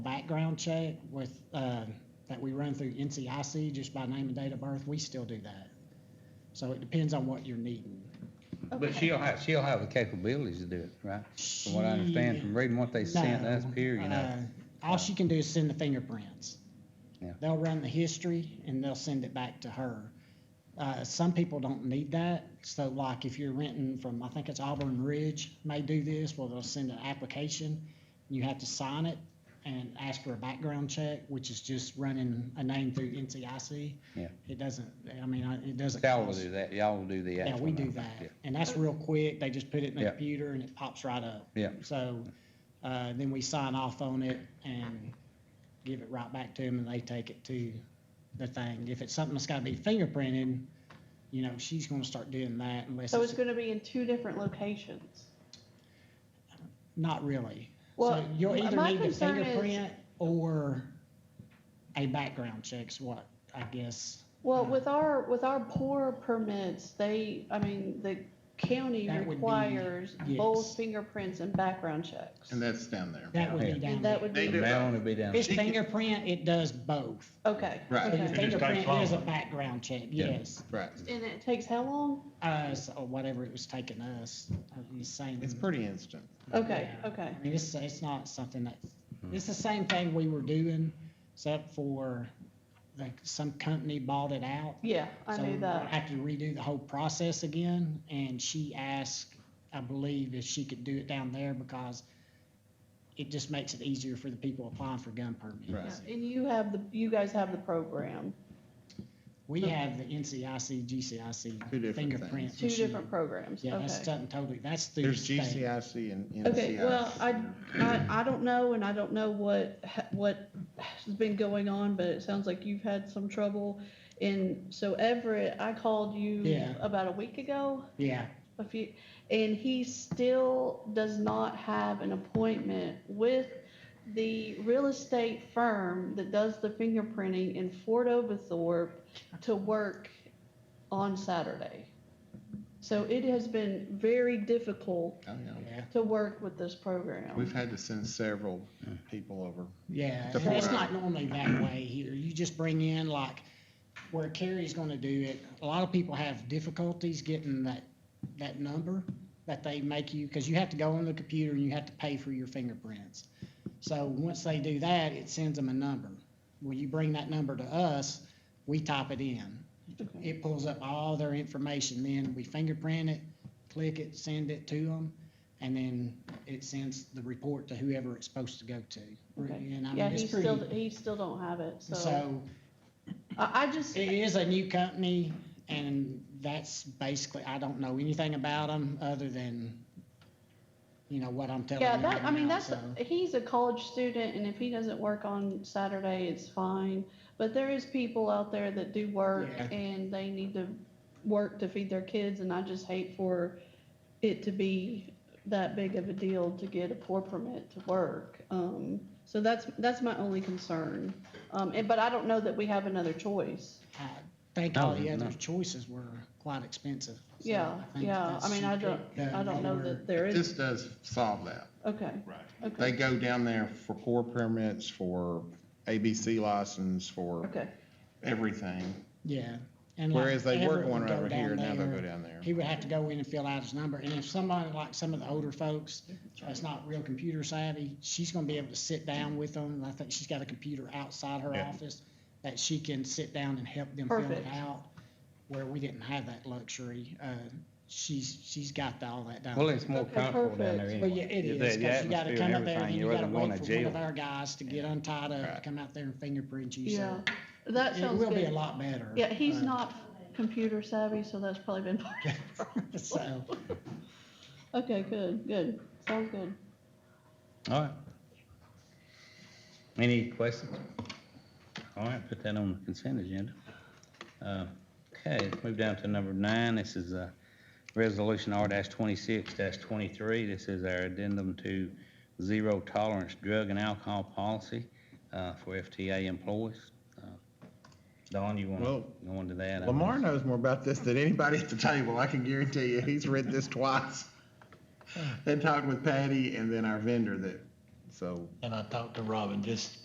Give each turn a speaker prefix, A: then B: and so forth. A: background check with, uh, that we run through NCIC just by name and date of birth, we still do that. So it depends on what you're needing.
B: But she'll have, she'll have the capabilities to do it, right? From what I understand, from reading what they sent
A: No,
B: us here, you know.
A: uh, All she can do is send the fingerprints.
B: Yeah.
A: They'll run the history and they'll send it back to her. Uh, some people don't need that, so like if you're renting from, I think it's Auburn Ridge, may do this, well, they'll send an application. You have to sign it and ask for a background check, which is just running a name through NCIC.
B: Yeah.
A: It doesn't, I mean, I- it doesn't.
B: Y'all will
A: cost-
B: do that, y'all will do the
A: Yeah,
B: actual.
A: we do
B: number.
A: that,
B: Yeah.
A: and that's real quick, they just put it in the
B: Yeah.
A: computer and it pops right up.
B: Yeah.
A: So, uh, then we sign off on it and give it right back to them and they take it to the thing. If it's something that's gotta be fingerprinted, you know, she's gonna start doing that unless
C: So it's
A: it's,
C: gonna be in two different locations.
A: not really. So
C: Well,
A: you'll
C: m-
A: either
C: my
A: need the
C: concern is-
A: fingerprint or a background check's what, I guess.
C: Well, with our, with our poor permits, they, I mean, the county
A: That would be-
C: requires both
A: yes.
C: fingerprints and background checks.
D: And that's down there.
A: That would
B: Yeah.
A: be down
C: And that
A: there.
C: would
D: They
C: be,
D: do.
B: That one will be down.
A: If it's fingerprint, it does both.
C: okay.
D: Right.
A: So your
C: okay.
E: takes
A: fingerprint
E: longer.
A: is a background check,
B: Yeah.
A: yes.
D: Right.
C: And it takes how long?
A: Us, or whatever it was taking us, uh, the same.
D: It's pretty instant.
C: Okay,
A: Yeah.
C: okay.
A: I mean, it's, it's not something that,
D: Hmm.
A: it's the same thing we were doing, except for, like, some company bought it out.
C: Yeah, I
A: So
C: knew
A: I
C: that.
A: had to redo the whole process again, and she asked, I believe, if she could do it down there because it just makes it easier for the people applying for gun
D: Right.
A: permits.
C: And you have the, you guys have the program,
A: We have the NCIC,
D: Two
A: GCIC
D: different things.
A: fingerprint.
C: two
A: machine.
C: different programs,
A: Yeah, that's
C: okay.
A: something totally, that's through the
D: There's
A: state.
D: GCIC and NCIC.
C: Okay, well, I, I, I don't know, and I don't know what, ha- what has been going on, but it sounds like you've had some trouble. And so Everett, I called you
A: Yeah.
C: about a week ago,
A: Yeah,
C: a few, and he still does not have an appointment with the real estate firm that does the fingerprinting in Fort Oglethorpe to work on Saturday. So it has been very difficult
D: Oh, yeah.
A: yeah,
C: to work with this program.
D: We've had to send several people over.
A: yeah.
D: To
A: And it's
D: Florida.
A: not normally that way here. You just bring in like where Carrie's gonna do it. A lot of people have difficulties getting that, that number that they make you, because you have to go on the computer and you have to pay for your fingerprints. So once they do that, it sends them a number. When you bring that number to us, we type it in. It pulls up all their information, then we fingerprint it, click it, send it to them, and then it sends the report to whoever it's supposed to go to.
C: Okay.
A: And I
C: Yeah,
A: mean,
C: he
A: it's
C: still,
A: pretty,
C: he still don't have it, so,
A: so
C: I, I just,
A: it is a new company and that's basically, I don't know anything about them other than, you know, what I'm telling you
C: yeah,
A: right now.
C: that, I mean, that's,
A: so.
C: he's a college student, and if he doesn't work on Saturday, it's fine. But there is people out there that do work,
A: Yeah.
C: and they need to work to feed their kids, and I just hate for it to be that big of a deal to get a poor permit to work. Um, so that's, that's my only concern. Um, and, but I don't know that we have another choice.
A: I think all the
B: No, no.
A: other choices were quite expensive. so
C: Yeah,
A: I think
C: yeah,
A: that's-
C: I mean, I don't,
A: the
C: I don't know
A: lower-
C: that there
D: This
C: is,
D: does solve that.
C: okay,
E: Right.
C: okay,
D: They go down there for core permits, for ABC license, for
C: okay.
D: everything.
A: Yeah. and like
D: Whereas they were
A: Everett
D: going
A: would go
D: over here,
A: down
D: now they'll
A: there.
D: go down there.
A: He would have to go in and fill out his number, and if somebody, like some of the older folks, that's not real computer savvy, she's gonna be able to sit down with them, and I think she's got a computer outside her
D: Yeah.
A: office that she can sit down and help them fill it
C: Perfect.
A: out, where we didn't have that luxury. Uh, she's, she's got the- all that down.
B: Well, it's more
C: Okay,
B: comfortable down there
C: perfect.
B: anyway.
A: Well, yeah, it
B: The-
A: is,
B: the
A: 'cause you gotta
B: atmosphere
A: come
B: and
A: up there,
B: everything,
A: then
B: you
A: you gotta
B: rather than going
A: wait
B: to
A: for one of
B: jail.
A: our guys to get untied up, to
D: Right.
A: come out there and fingerprint you,
C: Yeah,
A: so.
C: that
A: It
C: sounds
A: will be a
C: good.
A: lot better.
C: Yeah, he's
A: uh,
C: not computer savvy, so that's probably been part of the problem.
A: So,
C: Okay, good, good, sounds good.
B: All right. Any questions? All right, put that on the consent agenda. Uh, Okay, let's move down to number nine. This is uh, Resolution R-26-23. This is our addendum to zero tolerance drug and alcohol policy uh, for FTA employees. Uh, Don, you want to
D: Well,
B: go into that? I
D: Lamar
B: guess?
D: knows more about this than anybody at the table. I can guarantee you, he's read this twice. And talked with Patty and then our vendor that, so.
E: And I talked to Robin just